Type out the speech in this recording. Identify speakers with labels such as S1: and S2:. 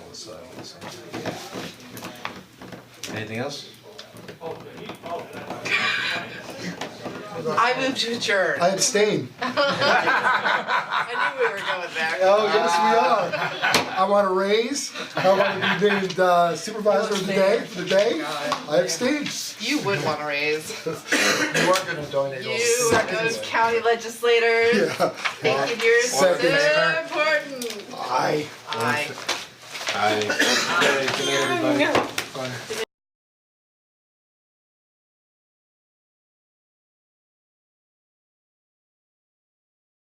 S1: so I would say, yeah. Anything else?
S2: I moved to adjourn.
S3: I abstain.
S2: I knew we were going there.
S3: Oh, yes, we are. I want a raise. I want to be named uh, supervisor of the day, for the day. I abstain.
S2: You would want to raise.
S4: You are gonna donate all
S2: You are those county legislators.
S3: Yeah,
S2: Thank you, you're so
S3: Second.
S2: important.
S3: aye.
S2: Aye.
S1: Aye. Good night, everybody.